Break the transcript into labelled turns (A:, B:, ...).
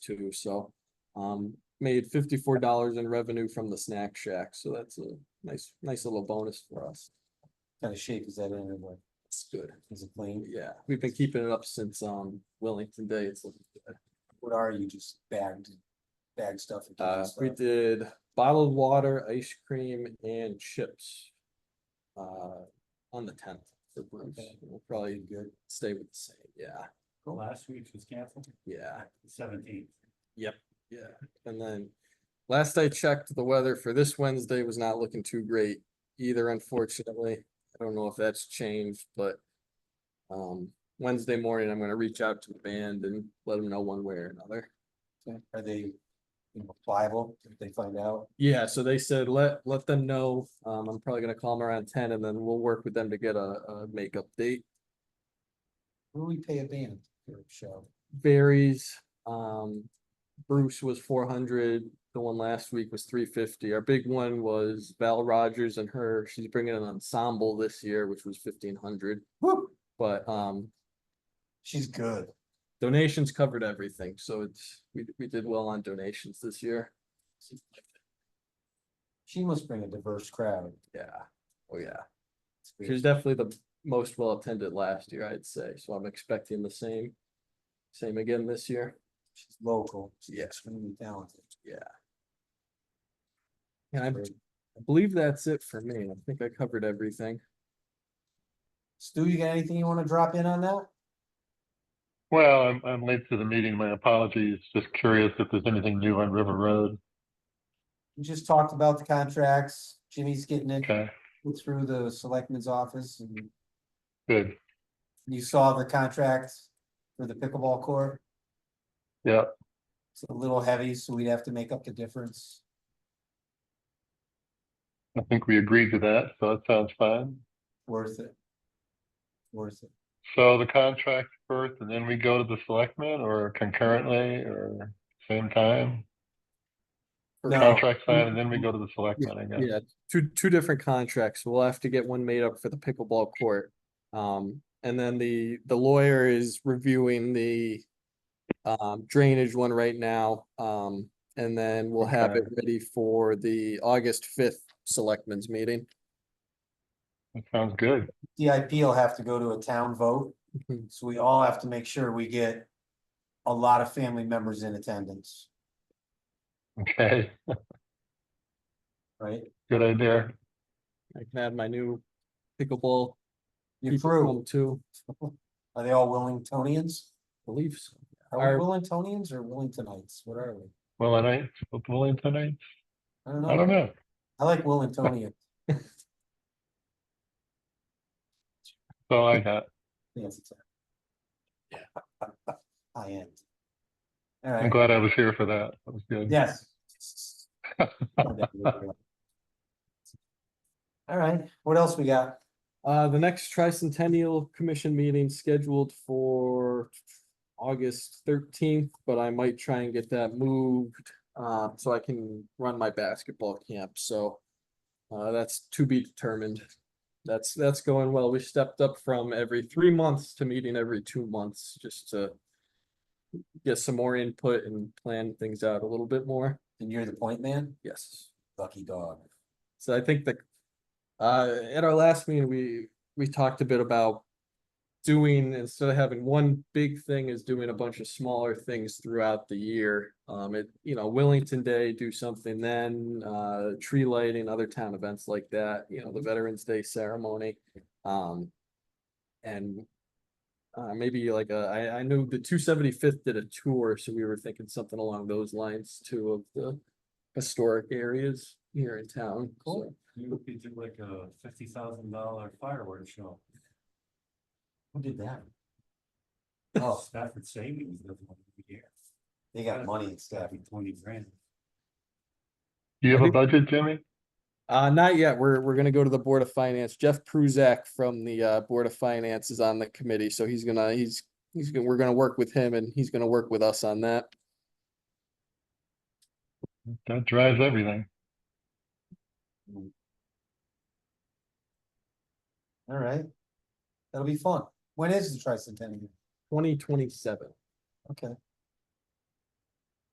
A: too, so. Um, made fifty-four dollars in revenue from the snack shack, so that's a nice, nice little bonus for us.
B: Kind of shape is that in, like,
A: It's good.
B: is it plain?
A: Yeah, we've been keeping it up since, um, Wellington Day. It's looking good.
B: What are you, just bagged, bagged stuff? and
A: Uh,
B: canned
A: we
B: stuff?
A: did bottled water, ice cream and chips. Uh, on the tenth for Bruce.
B: Okay.
A: We'll probably
B: Good.
A: stay with the same. Yeah,
C: Last week's was canceled,
B: Uh,
A: yeah.
C: seventeenth.
A: Yeah, and then last I checked, the weather for this Wednesday was not looking too great either, unfortunately. I don't know if that's changed, but um, Wednesday morning, I'm gonna reach out to the band and let them know one way or another.
B: Are they you know, pliable if they find out?
A: Yeah, so they said, let, let them know. Um, I'm probably gonna call them around ten and then we'll work with them to get a, a makeup date.
B: Will we pay a band for a show?
A: varies. Um, Bruce was four hundred, the one last week was three fifty. Our big one was Val Rogers and her, she's bringing an ensemble this year, which was fifteen hundred.
B: Woo,
A: But, um,
B: she's good.
A: donations covered everything, so it's, we, we did well on donations this year.
B: She must bring a diverse crowd.
A: Yeah, oh yeah.
B: It's
A: She was
B: weird.
A: definitely the most well attended last year, I'd say, so I'm expecting the same, same again this year.
B: She's local. She's
A: Yeah.
B: extremely talented.
A: And I
B: Great.
A: I believe that's it for me. I think I covered everything.
B: Stu, you got anything you want to drop in on that?
D: Well, I'm, I'm late to the meeting. My apologies. Just curious if there's anything new on River Road.
B: We just talked about the contracts. Jimmy's getting it
D: Okay,
B: through the selectman's office and
D: good.
B: you saw the contract for the pickleball court.
D: Yeah,
B: It's a little heavy, so we'd have to make up the difference.
D: I think we agreed to that, so that sounds fine.
B: Worth it. Worth it.
D: So the contract first and then we go to the selectmen or concurrently or same time?
A: For
B: No.
D: Contract signed and then we go to the selectmen, I guess.
A: Yeah, two, two different contracts. We'll have to get one made up for the pickleball court. Um, and then the, the lawyer is reviewing the um, drainage one right now. Um, and then we'll have it
D: Okay.
A: ready for the August fifth selectmen's meeting.
D: That sounds good.
B: DIP will have to go to a town vote,
A: Mhm.
B: so we all have to make sure we get a lot of family members in attendance,
D: Okay,
B: right?
D: good idea.
A: I can add my new pickleball.
B: Your
A: people
B: crew,
A: home Too,
B: are they all Wellingtonians?
A: I believe so.
B: Are we Wellingtonians or Wellingtonites? What are we?
D: Well, I night, willing tonight?
B: I don't know.
D: I don't know.
B: I like Wellingtonian.
D: So I got,
B: Yeah. I am.
D: I'm
B: Alright,
D: glad I was here for that. That was good.
B: yes. Alright, what else we got?
A: Uh, the next tricentennial commission meeting scheduled for August thirteenth, but I might try and get that moved. Uh, so I can run my basketball camp, so. Uh, that's to be determined. That's, that's going well. We stepped up from every three months to meeting every two months, just to. Get some more input and plan things out a little bit more.
B: And you're the point man?
A: Yes.
B: Lucky dog.
A: So I think the, uh, at our last meeting, we, we talked a bit about doing, instead of having one big thing, is doing a bunch of smaller things throughout the year. Um, it, you know, Wellington Day, do something then, uh, tree lighting, other town events like that, you know, the Veterans Day ceremony. Um, and uh, maybe like, a- I I knew the two seventy-fifth did a tour, so we were thinking something along those lines too of the historic areas here in town.
B: Cool.
C: You could do like a fifty thousand dollar fireworks show.
B: Who did that? Oh,
C: Stafford Savings does one every year.
B: they got money and stuff.
C: That'd be twenty grand.
D: Do you have a budget, Jimmy?
A: Uh, not yet. We're, we're gonna go to the Board of Finance. Jeff Pruzak from the, uh, Board of Finance is on the committee, so he's gonna, he's, he's, gonna we're gonna work with him and he's gonna work with us on that.
D: That drives everything.
B: Alright. That'll be fun. When is the tricentennial?
A: Twenty twenty-seven.
B: Okay,